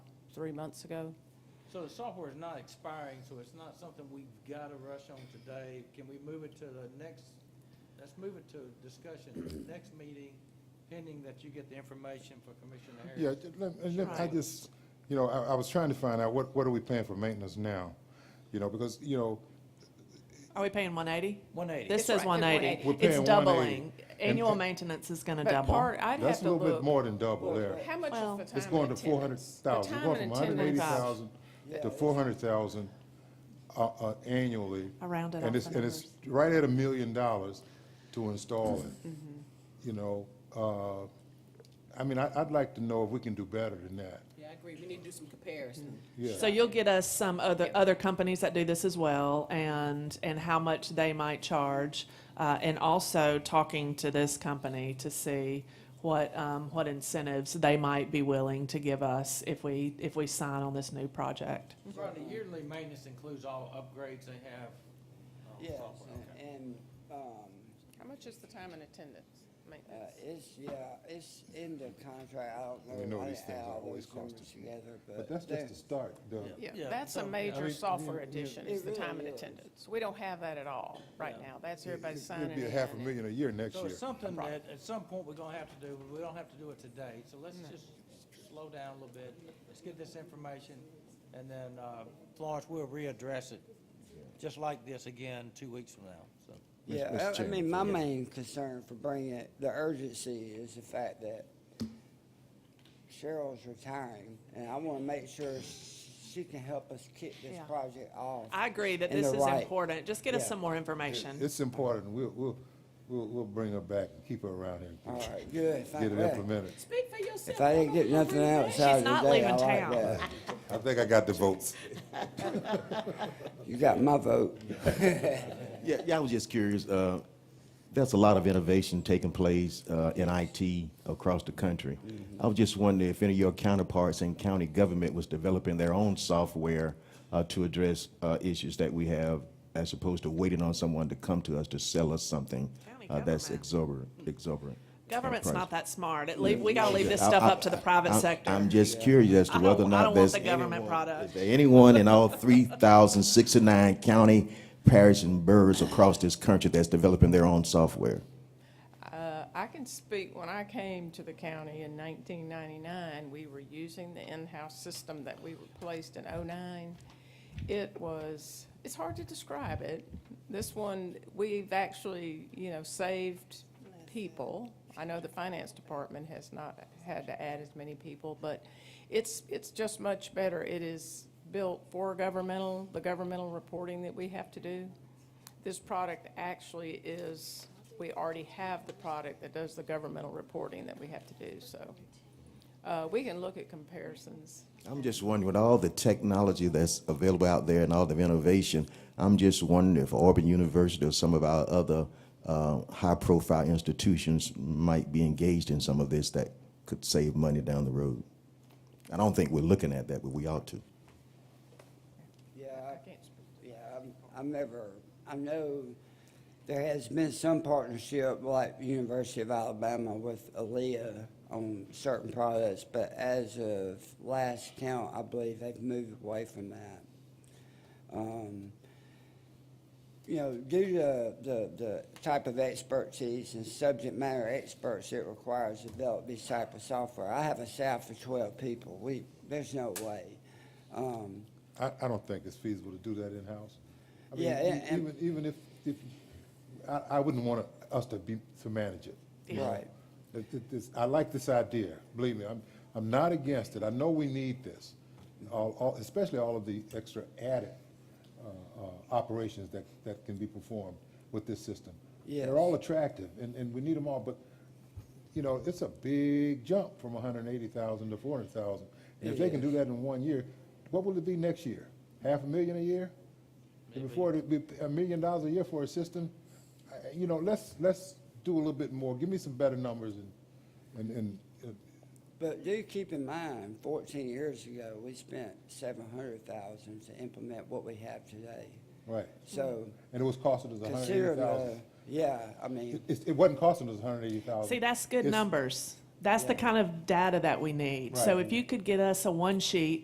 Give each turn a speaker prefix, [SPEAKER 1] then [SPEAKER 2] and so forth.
[SPEAKER 1] three months ago.
[SPEAKER 2] So the software is not expiring, so it's not something we've got to rush on today. Can we move it to the next, let's move it to discussion, next meeting, pending that you get the information for Commissioner
[SPEAKER 3] Yeah,
[SPEAKER 2] Harris?
[SPEAKER 3] ju- let- and let- I
[SPEAKER 1] Right.
[SPEAKER 3] just, you know, I, I was trying to find out what, what are we paying for maintenance now? You know, because, you know,
[SPEAKER 1] Are we paying one eighty?
[SPEAKER 2] One eighty.
[SPEAKER 1] This says
[SPEAKER 4] right,
[SPEAKER 1] one eighty.
[SPEAKER 4] it's
[SPEAKER 3] We're
[SPEAKER 1] It's
[SPEAKER 3] paying 180.
[SPEAKER 1] doubling.
[SPEAKER 3] And
[SPEAKER 1] Annual
[SPEAKER 3] pa-
[SPEAKER 1] maintenance is gonna
[SPEAKER 4] But
[SPEAKER 1] double.
[SPEAKER 4] part, I'd have
[SPEAKER 3] that's a
[SPEAKER 4] to
[SPEAKER 3] little bit
[SPEAKER 4] look,
[SPEAKER 3] more than double there.
[SPEAKER 4] how much
[SPEAKER 1] Well-
[SPEAKER 4] is the
[SPEAKER 3] It's
[SPEAKER 4] time
[SPEAKER 3] going
[SPEAKER 4] and
[SPEAKER 3] to four hundred
[SPEAKER 4] attendance?
[SPEAKER 3] thousand, we're
[SPEAKER 4] The time
[SPEAKER 3] going
[SPEAKER 4] and
[SPEAKER 3] from hundred and eighty
[SPEAKER 4] attendance.
[SPEAKER 3] thousand to four hundred thousand, uh, uh, annually.
[SPEAKER 1] I rounded off
[SPEAKER 3] And it's,
[SPEAKER 1] the
[SPEAKER 3] and it's right at a million dollars to install it,
[SPEAKER 4] Mm-hmm.
[SPEAKER 3] you know, uh, I mean, I, I'd like to know if we can do better than that,
[SPEAKER 4] Yeah, I agree, we need to do some comparison.
[SPEAKER 3] yeah.
[SPEAKER 1] So you'll get us some other, other companies that do this as well and, and how much they might charge. Uh, and also talking to this company to see what, um, what incentives they might be willing to give us if we, if we sign on this new project.
[SPEAKER 2] Rodney, yearly maintenance includes all upgrades they have. on
[SPEAKER 5] Yes,
[SPEAKER 2] software.
[SPEAKER 5] and- and, um,
[SPEAKER 4] How much is the time and attendance
[SPEAKER 5] uh,
[SPEAKER 4] maintenance?
[SPEAKER 5] it's, yeah, it's in the contract, I don't know.
[SPEAKER 3] We know
[SPEAKER 5] I-
[SPEAKER 3] these
[SPEAKER 5] I
[SPEAKER 3] things are
[SPEAKER 5] all
[SPEAKER 3] always
[SPEAKER 5] these numbers
[SPEAKER 3] costing.
[SPEAKER 5] Together,
[SPEAKER 3] But
[SPEAKER 5] but.
[SPEAKER 3] that's
[SPEAKER 5] there-
[SPEAKER 3] just the start, though.
[SPEAKER 2] Yeah,
[SPEAKER 4] Yeah, that's
[SPEAKER 2] so-
[SPEAKER 4] a
[SPEAKER 3] I
[SPEAKER 4] major
[SPEAKER 3] mean,
[SPEAKER 5] yeah,
[SPEAKER 4] software
[SPEAKER 3] yeah.
[SPEAKER 4] addition,
[SPEAKER 5] It
[SPEAKER 4] is the
[SPEAKER 5] really
[SPEAKER 4] time and
[SPEAKER 5] is.
[SPEAKER 4] attendance. We don't have that at all right now. That's everybody signing
[SPEAKER 3] It'd be a
[SPEAKER 4] and
[SPEAKER 3] half a
[SPEAKER 4] signing.
[SPEAKER 3] million a year next
[SPEAKER 2] So
[SPEAKER 3] year.
[SPEAKER 2] it's something that at some point we're gonna have to do, but we don't have to do it today. So let's just slow down a little bit. Let's get this information and then, uh, Florence, we'll readdress it, just like this again, two weeks from now, so.
[SPEAKER 3] Mis- Mr.
[SPEAKER 5] Yeah, I- I mean,
[SPEAKER 3] Chairman,
[SPEAKER 5] my
[SPEAKER 3] yeah.
[SPEAKER 5] main concern for bringing it, the urgency is the fact that Cheryl's retiring, and I want to make sure she can help us kick this
[SPEAKER 1] Yeah.
[SPEAKER 5] project off.
[SPEAKER 1] I agree that
[SPEAKER 5] And
[SPEAKER 1] this
[SPEAKER 5] they're
[SPEAKER 1] is
[SPEAKER 5] right.
[SPEAKER 1] important. Just get us
[SPEAKER 5] Yeah.
[SPEAKER 1] some more
[SPEAKER 3] It-
[SPEAKER 1] information.
[SPEAKER 3] It's important, we'll, we'll, we'll, we'll bring her back and keep her around here.
[SPEAKER 5] All right, good. Thank
[SPEAKER 3] Get it
[SPEAKER 5] you.
[SPEAKER 3] implemented.
[SPEAKER 4] Speak for yourself.
[SPEAKER 5] If I didn't get nothing else
[SPEAKER 1] She's
[SPEAKER 5] out of the
[SPEAKER 1] not
[SPEAKER 5] day,
[SPEAKER 1] leaving
[SPEAKER 5] I like
[SPEAKER 1] town.
[SPEAKER 5] that.
[SPEAKER 3] I think I got the votes.
[SPEAKER 5] You got my vote.
[SPEAKER 6] Yeah, yeah, I was just curious. Uh, there's a lot of innovation taking place uh, in IT across the country. I was just wondering if any of your counterparts in county government was developing their own software uh, to address uh, issues that we have, as opposed to waiting on someone to come to us to sell us something
[SPEAKER 1] County
[SPEAKER 6] uh, that's
[SPEAKER 1] government.
[SPEAKER 6] exorbitant. exorbitant uh,
[SPEAKER 1] Government's
[SPEAKER 6] price.
[SPEAKER 1] not that smart. It leave, we gotta leave this
[SPEAKER 6] I-
[SPEAKER 1] stuff
[SPEAKER 6] I-
[SPEAKER 1] up to the private
[SPEAKER 6] I'm-
[SPEAKER 1] sector.
[SPEAKER 6] I'm just curious as
[SPEAKER 1] I
[SPEAKER 6] to
[SPEAKER 1] don't-
[SPEAKER 6] whether or
[SPEAKER 1] I
[SPEAKER 6] not
[SPEAKER 1] don't want
[SPEAKER 6] there's.
[SPEAKER 1] the government
[SPEAKER 6] anyone-
[SPEAKER 1] product.
[SPEAKER 6] Is there anyone in all three thousand sixty-nine county, parish, and boroughs across this country that's developing their own software?
[SPEAKER 4] Uh, I can speak, when I came to the county in 1999, we were using the in-house system that we replaced in '09. It was, it's hard to describe it. This one, we've actually, you know, saved people. I know the finance department has not had to add as many people, but it's, it's just much better. It is built for governmental, the governmental reporting that we have to do. This product actually is, we already have the product that does the governmental reporting that we have to do, so. Uh, we can look at comparisons.
[SPEAKER 6] I'm just wondering, with all the technology that's available out there and all the innovation, I'm just wondering if Auburn University or some of our other uh, high-profile institutions might be engaged in some of this that could save money down the road. I don't think we're looking at that, but we ought to.
[SPEAKER 5] Yeah,
[SPEAKER 4] I
[SPEAKER 5] I-
[SPEAKER 4] can't speak.
[SPEAKER 5] yeah, I'm, I'm never, I know there has been some partnership, like the University of Alabama with Aaliyah on certain products, but as of last count, I believe they've moved away from that. Um, you know, due to the, the type of expertise and subject matter experts it requires to develop these type of software, I have a staff of twelve people, we, there's no way. Um,
[SPEAKER 3] I, I don't think it's feasible to do that in-house. I mean,
[SPEAKER 5] Yeah,
[SPEAKER 3] e-
[SPEAKER 5] and-
[SPEAKER 3] Even, even if, if, I, I wouldn't want us to be, to manage it. you know?
[SPEAKER 5] Right.
[SPEAKER 3] It- it- it's- I like this idea, believe me, I'm, I'm not against it, I know we need this. All, all, especially all of the extra added, uh, uh, operations that, that can be performed with this system.
[SPEAKER 5] Yes.
[SPEAKER 3] They're all attractive, and, and we need them all, but, you know, it's a big jump from hundred and eighty thousand to four hundred thousand. And if they can do that in one year, what will it be next yeyear? Half a million a year? And Before it'd be a million dollars a year for a system? I- You know, let's, let's do a little bit more, give me some better numbers and, and, and, uh,
[SPEAKER 5] But do keep in mind, fourteen years ago, we spent seven hundred thousand to implement what we have today.
[SPEAKER 3] right.
[SPEAKER 5] So
[SPEAKER 3] And it was costing us a hundred and
[SPEAKER 5] consider
[SPEAKER 3] eighty
[SPEAKER 5] the,
[SPEAKER 3] thousand.
[SPEAKER 5] yeah, I mean,
[SPEAKER 3] It, it wasn't costing us a hundred and eighty thousand.
[SPEAKER 1] See, that's good numbers. That's the kind of data that we need. So
[SPEAKER 3] Right.
[SPEAKER 1] if you could get us a one sheet